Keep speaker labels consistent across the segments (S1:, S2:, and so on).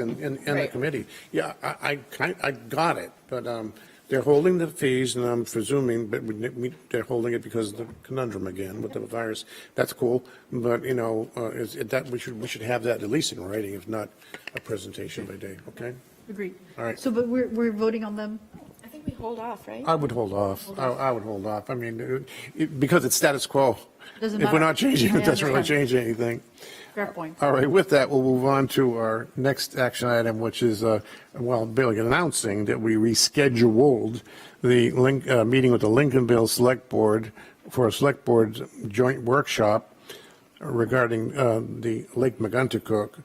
S1: in, in, in the
S2: Right.
S1: committee. Yeah, I, I, kind- I got it, but, um, they're holding the fees and I'm presuming, but we, we, they're holding it because of the conundrum again with the virus. That's cool, but, you know, uh, is, it- that, we should, we should have that at least in writing, if not a presentation by day, okay?
S2: Agreed.
S1: All right.
S2: So, but we're, we're voting on them?
S3: I think we hold off, right?
S1: I would hold off. I, I would hold off. I mean, it- it, because it's status quo.
S2: Doesn't
S1: If we're
S2: matter.
S1: not changing,
S2: I
S1: it doesn't really
S2: understand.
S1: change anything.
S2: Fair point.
S1: All right, with that, we'll move on to our next action item, which is, uh, well, Bill, you're announcing that we rescheduled the link, uh, meeting with the Lincolnville Select Board for a Select Board joint workshop regarding, uh, the Lake McGuntacook,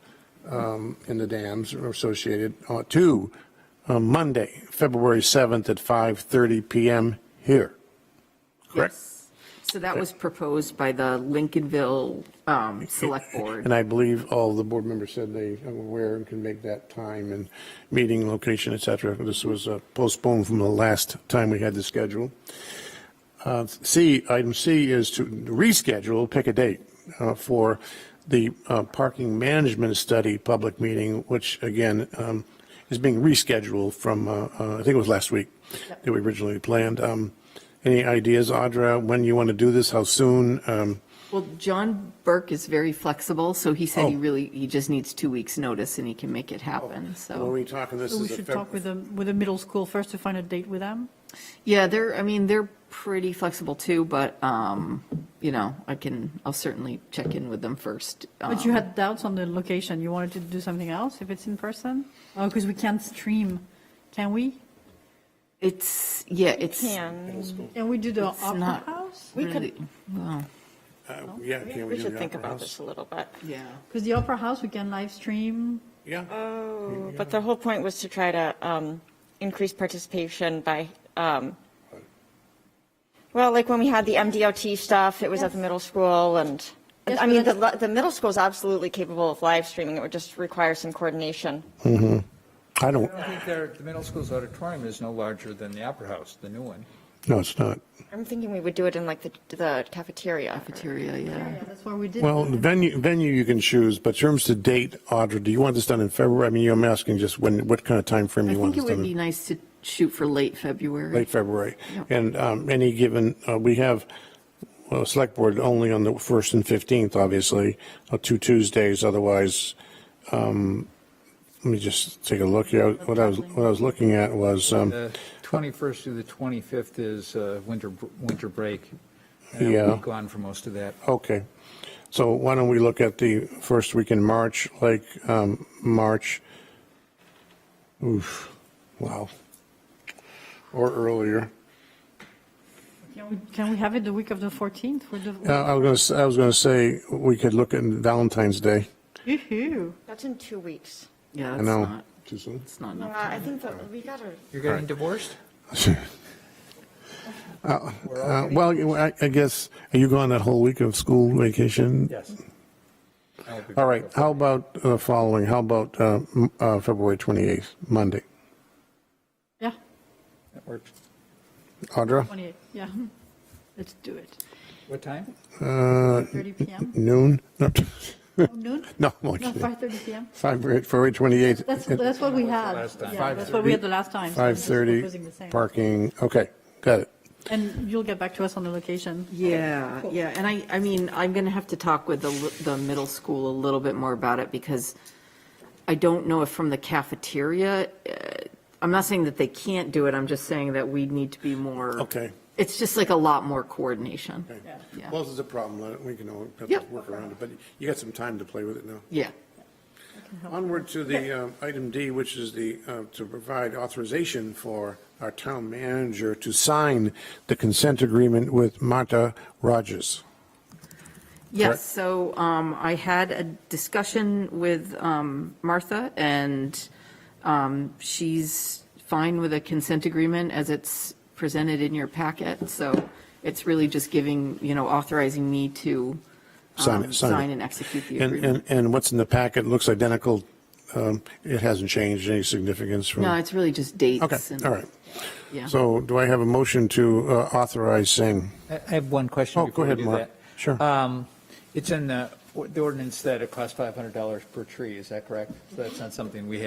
S1: um, and the dams associated, uh, to, uh, Monday, February 7th at 5:30 PM here. Correct?
S4: Yes. So that was proposed by the Lincolnville um, Select Board.
S1: And I believe all the board members said they are aware and can make that time and meeting location, et cetera. This was uh, postponed from the last time we had the schedule. Uh, C, item C is to reschedule, pick a date uh, for the uh, parking management study public meeting, which again um, is being rescheduled from, uh, uh, I think it was last week that we originally planned. Um, Any ideas, Audra, when you want to do this, how soon? Um,
S4: Well, John Burke is very flexible, so he said he
S1: Oh.
S4: really, he just needs two weeks' notice and he can make it happen,
S1: Were
S4: so.
S1: we talking this
S2: So
S1: is
S2: we
S1: a
S2: should
S1: Feb-
S2: talk with the, with the middle school first to find a date with them?
S4: Yeah, they're, I mean, they're pretty flexible too, but, um, you know, I can, I'll certainly check in with them first.
S2: But you
S4: um,
S2: had doubts on the location. You wanted to do something else if it's in person? Oh, because we can't stream, can we?
S4: It's, yeah, it's.
S3: Can,
S2: Can we do the
S4: It's
S2: Opera
S4: not-
S2: House?
S3: we
S4: really-
S3: could,
S4: Well,
S1: Uh, Yeah, can we
S3: we
S1: do
S3: should
S1: the
S3: think
S1: Opera
S3: about
S1: House?
S3: this a little bit.
S4: yeah.
S2: Because the Opera House, we can live stream.
S1: Yeah,
S3: Oh, but the whole point was to try to um, increase participation by, um, well, like when we had the MDOT stuff, it was at the middle school and,
S2: Yes,
S3: I
S2: but
S3: mean, the,
S2: that's-
S3: li- the middle school is absolutely capable of live streaming. It would just require some coordination.
S1: I don't,
S5: I think their, the middle school's auditorium is no larger than the Opera House, the new one.
S1: no, it's not.
S3: I'm thinking we would do it in like the, the cafeteria.
S4: Cafeteria, yeah.
S2: Yeah, that's why we did.
S1: Well,
S2: it.
S1: venue, venue you can choose, but in terms to date, Audra, do you want this done in February? I mean, I'm asking just when, what kind of time frame
S4: I
S1: you want
S4: think it
S1: this
S4: would
S1: done
S4: be
S1: in?
S4: nice to shoot for late February.
S1: Late February.
S4: Yeah.
S1: And um, any given, uh, we have, well, select board only on the 1st and 15th, obviously, uh, two Tuesdays, otherwise, um, let me just take a look here. What I was, what I was looking at was, um,
S5: The 21st through the 25th is uh, winter, br- winter break. And I'll be
S1: Yeah.
S5: Gone for most of that.
S1: Okay. So why don't we look at the first week in March, like, um, March, oof, wow, or earlier.
S2: Can we- Can we have it the week of the 14th? for the-
S1: Uh, I was gonna, I was gonna say, we could look at Valentine's Day.
S2: Yoo-hoo.
S3: That's in two weeks.
S4: Yeah,
S1: I
S4: it's
S1: know.
S4: not,
S1: Too soon?
S4: it's not
S3: Uh,
S4: enough.
S3: I think that we gotta.
S5: You're getting divorced?
S1: Uh, Well, you- I I guess, are you gone that whole week of school vacation?
S5: Yes.
S1: All right, how about the following? How about uh, m- uh, February 28th, Monday?
S2: Yeah,
S5: That works.
S1: Audra,
S2: 28, yeah. Let's do it.
S5: What time?
S2: 30 PM,
S1: noon? No,
S2: Oh, noon?
S1: Uh, No, I'm only
S2: No,
S1: kidding.
S2: 5:30 PM.
S1: February 28th.
S2: That's, that's what we had.
S5: last time.
S2: Yeah, that's what we had the last time. so I'm just proposing the
S1: 5:30,
S2: same.
S1: parking, okay, got it.
S2: And you'll get back to us on the location.
S4: Yeah, yeah, and I, I mean, I'm going to have to talk with the, li- the middle school a little bit more about it because I don't know if from the cafeteria, uh, I'm not saying that they can't do it, I'm just saying that we need to be more.
S1: Okay.
S4: It's just like a lot more coordination. Yeah.
S1: Well, this is a problem, Let it- we can all have to
S4: Yep.
S1: work around it, but you got some time to play with it now.
S4: Yeah,
S1: Onward to the um, item D, which is the, uh, to provide authorization for our town manager to sign the consent agreement with Marta Rogers. Correct.
S4: yes, so um, I had a discussion with um, Martha and um, she's fine with a consent agreement as it's presented in your packet, so it's really just giving, you know, authorizing me to
S1: Sign
S4: um,
S1: it, sign it.
S4: and execute the
S1: And,
S4: agreement.
S1: and, and what's in the packet looks identical, um, it hasn't changed any significance from.
S4: No, it's really just dates.
S1: Okay,
S4: and-
S1: all right.
S4: Yeah.
S1: So do I have a motion to uh, authorize saying?
S5: I I have one question
S1: Oh, go
S5: before we
S1: ahead,
S5: do
S1: Mark.
S5: that.
S1: Sure.
S5: Um, It's in the the ordinance that it costs $500 per tree, is that correct? So that's not something we have.